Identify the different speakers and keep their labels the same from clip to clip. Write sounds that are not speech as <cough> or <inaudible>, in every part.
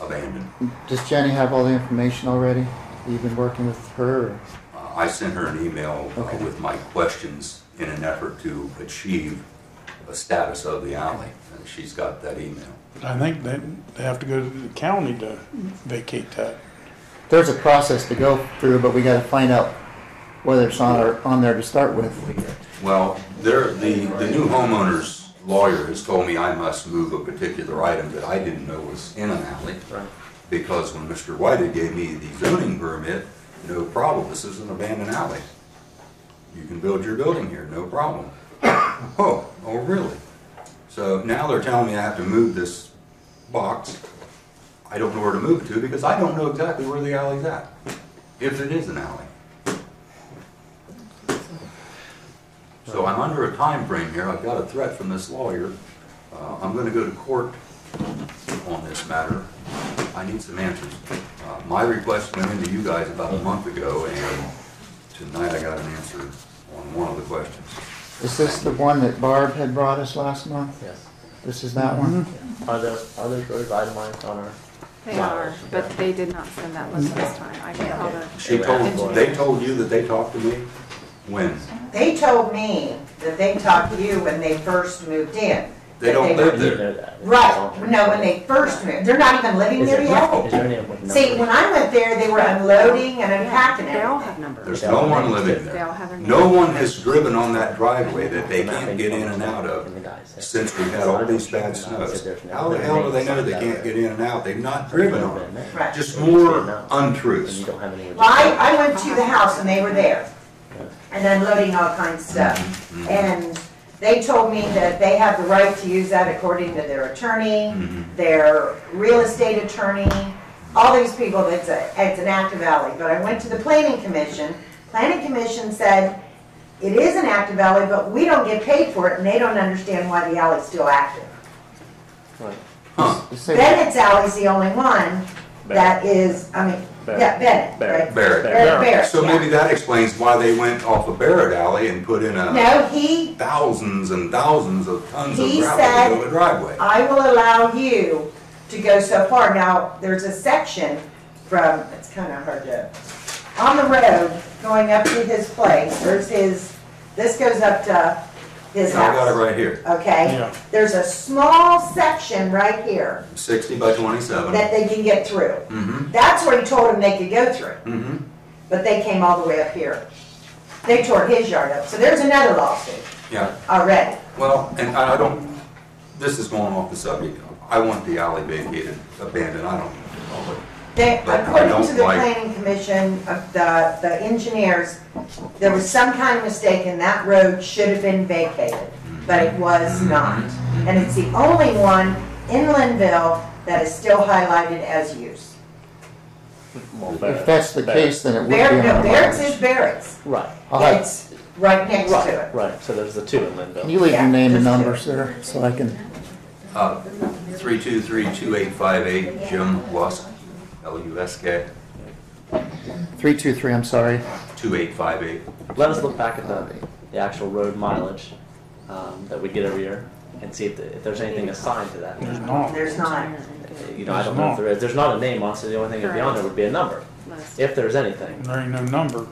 Speaker 1: abandoned.
Speaker 2: Does Jenny have all the information already? You've been working with her? or-
Speaker 1: Uh, I sent her an email uh,
Speaker 2: Okay.
Speaker 1: with my questions in an effort to achieve a status of the alley, and she's got that email.
Speaker 3: I think they, they have to go to the county to vacate that.
Speaker 2: There's a process to go through, but we gotta find out whether it's on, our- on there to start with.
Speaker 1: Well, there, the, the new homeowner's lawyer has told me I must move a particular item that I didn't know was in an alley. Because when Mr. Whitey gave me the zoning permit, no problem, this is an abandoned alley. You can build your building here, no problem. <coughs> Oh, oh, really? So now they're telling me I have to move this box. I don't know where to move it to because I don't know exactly where the alley's at, if it is an alley. So I'm under a time frame here, I've got a threat from this lawyer. Uh, I'm gonna go to court on this matter. I need some answers. Uh, My request went into you guys about a month ago, and tonight I got an answer on one of the questions.
Speaker 2: Is this the one that Barb had brought us last month?
Speaker 4: Yes.
Speaker 2: This is that one?
Speaker 4: Are those, are those road guidelines on our?
Speaker 5: They are, but they did not send that list this time. I can call the,
Speaker 1: She told, they told you that they talked to me? When?
Speaker 6: They told me that they talked to you when they first moved in.
Speaker 1: They don't
Speaker 6: That
Speaker 1: live there.
Speaker 4: You know that.
Speaker 6: Right, no, when they first moved, they're not even living
Speaker 4: Is
Speaker 6: there
Speaker 4: there,
Speaker 6: yet.
Speaker 4: is there any of them?
Speaker 6: See, when I went there, they were unloading and unpacking
Speaker 5: they all
Speaker 6: everything.
Speaker 5: have numbers.
Speaker 1: There's no one living
Speaker 5: They all
Speaker 1: there.
Speaker 5: have their names.
Speaker 1: No one has driven on that driveway that they can't get in and out of. since we've had all these bad snows. How the hell do they know they can't get in and out? They've not driven on it.
Speaker 6: Right.
Speaker 1: Just more untruths.
Speaker 4: You don't have any.
Speaker 6: Well, I, I went to the house and they were there and unloading all kinds of
Speaker 1: Mm-hmm.
Speaker 6: stuff. And they told me that they have the right to use that according to their attorney,
Speaker 1: Mhm.
Speaker 6: their real estate attorney, all these people, it's a, it's an active alley. But I went to the planning commission, planning commission said, it is an active alley, but we don't get paid for it and they don't understand why the alley's still active.
Speaker 4: Right.
Speaker 2: Let's see.
Speaker 6: Bennett's Alley's the only one that is, I mean, yeah, Bennett, right?
Speaker 1: Barrett.
Speaker 6: Barrett, Barrett,
Speaker 1: So maybe
Speaker 6: yeah.
Speaker 1: that explains why they went off of Barrett Alley and put in a
Speaker 6: No, he
Speaker 1: thousands and thousands of tons of
Speaker 6: He
Speaker 1: gravel to build
Speaker 6: said-
Speaker 1: a driveway.
Speaker 6: I will allow you to go so far. Now, there's a section from, it's kind of hard to, on the road, going up to his place, there's his, this goes up to
Speaker 1: I
Speaker 6: his
Speaker 1: got it
Speaker 6: house,
Speaker 1: right here,
Speaker 6: okay?
Speaker 3: Yeah.
Speaker 6: There's a small section right here
Speaker 1: sixty by twenty-seven.
Speaker 6: that they can get through.
Speaker 1: Mm-hmm,
Speaker 6: That's where he told them they could go through,
Speaker 1: mm-hmm.
Speaker 6: but they came all the way up here. They tore his yard up, so there's another lawsuit
Speaker 1: Yeah,
Speaker 6: already.
Speaker 1: well, and I I don't, this is going off the subject. I want the alley vacated, abandoned, I don't. know.
Speaker 6: They,
Speaker 1: But I
Speaker 6: according
Speaker 1: don't
Speaker 6: to the
Speaker 1: like-
Speaker 6: planning commission, of the, the engineers, there was some kind of mistake and that road should have been vacated, but it was
Speaker 1: Mm-hmm.
Speaker 6: not. And it's the only one in Linville that is still highlighted as use.
Speaker 2: If that's the case, then it would be
Speaker 6: Bar, no,
Speaker 2: on our
Speaker 6: Barrett's is
Speaker 2: list.
Speaker 6: Barrett's.
Speaker 4: Right,
Speaker 2: I'll have-
Speaker 6: It's right next to
Speaker 4: right,
Speaker 6: it.
Speaker 4: right. So there's the two in Linville.
Speaker 2: Can you leave your
Speaker 6: Yeah,
Speaker 2: name and
Speaker 6: just do it.
Speaker 2: number, sir, so I can,
Speaker 1: Uh, 323-2858, Jim Lusk, L-U-S-K,
Speaker 2: three two three, I'm sorry.
Speaker 1: 2858.
Speaker 4: Let us look back at the, the actual road mileage um, that we get every year and see if, the, if there's anything assigned to that.
Speaker 3: There's not.
Speaker 6: There's not.
Speaker 4: You know, I don't know if there is. There's not a name on, so the only thing that'd be on there would be a number,
Speaker 5: List.
Speaker 4: if there's anything.
Speaker 3: There ain't no number.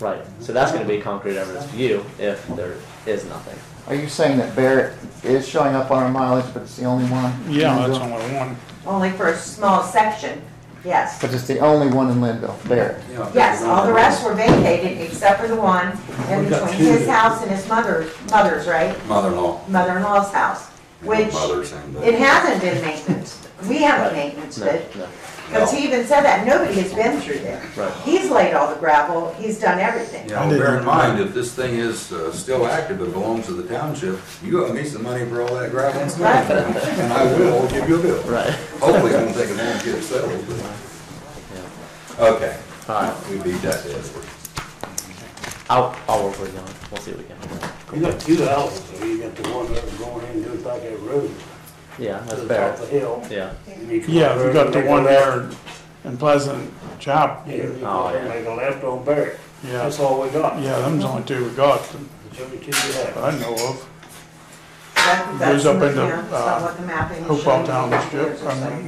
Speaker 4: Right. So that's going to be concrete evidence for you if there is nothing.
Speaker 2: Are you saying that Barrett is showing up on our mileage, but it's the only one? in
Speaker 3: Yeah, that's
Speaker 2: Linville?
Speaker 3: only one.
Speaker 6: Only for a small section, yes.
Speaker 2: But it's the only one in Linville, Barrett.
Speaker 6: Yes, all the rest were vacated except for the one in
Speaker 1: We've got
Speaker 6: between
Speaker 1: two.
Speaker 6: his house and his mother, mother's, right?
Speaker 1: Mother-in-law.
Speaker 6: mother-in-law's house, which
Speaker 1: Mother's and the-
Speaker 6: it hasn't been maintenance. We haven't maintenance
Speaker 4: No,
Speaker 6: it,
Speaker 4: no.
Speaker 6: because he even said that, nobody has been through there.
Speaker 4: Right.
Speaker 6: He's laid all the gravel, he's done everything.
Speaker 1: Yeah, well, bear in mind, if this thing is uh, still active and belongs to the township, you owe me some money for all that gravel and snow.
Speaker 6: Right.
Speaker 1: And I will give you a bill.
Speaker 4: Right.
Speaker 1: Hopefully, it won't take a long to get it settled, but. Okay,
Speaker 4: All right.
Speaker 1: we beat that dead horse.
Speaker 4: I'll, I'll work with you on it. We'll see what we can. do.
Speaker 7: You got two houses, so you got the one that was going in, goes back that road,
Speaker 4: Yeah,
Speaker 7: to
Speaker 4: that's
Speaker 7: the top
Speaker 4: fair.
Speaker 7: of the hill.
Speaker 4: Yeah.
Speaker 7: and you come
Speaker 3: Yeah,
Speaker 7: over
Speaker 3: you got the
Speaker 7: and
Speaker 3: one
Speaker 7: make a left.
Speaker 3: there in Pleasant Chop.
Speaker 7: Yeah, you
Speaker 4: Oh,
Speaker 7: go there and
Speaker 4: yeah.
Speaker 7: make a left on Barrett.
Speaker 3: Yeah.
Speaker 7: That's all we got.
Speaker 3: Yeah, them's the only two we got
Speaker 7: There's only two we have.
Speaker 3: that I know of.
Speaker 6: That-
Speaker 3: Goes
Speaker 6: that's
Speaker 3: up
Speaker 6: in the-
Speaker 3: into,
Speaker 6: yeah, that's not
Speaker 3: uh,
Speaker 6: what the mapping is
Speaker 3: Hopewell
Speaker 6: showing.
Speaker 3: Township,
Speaker 6: There's a
Speaker 3: I mean,
Speaker 6: second.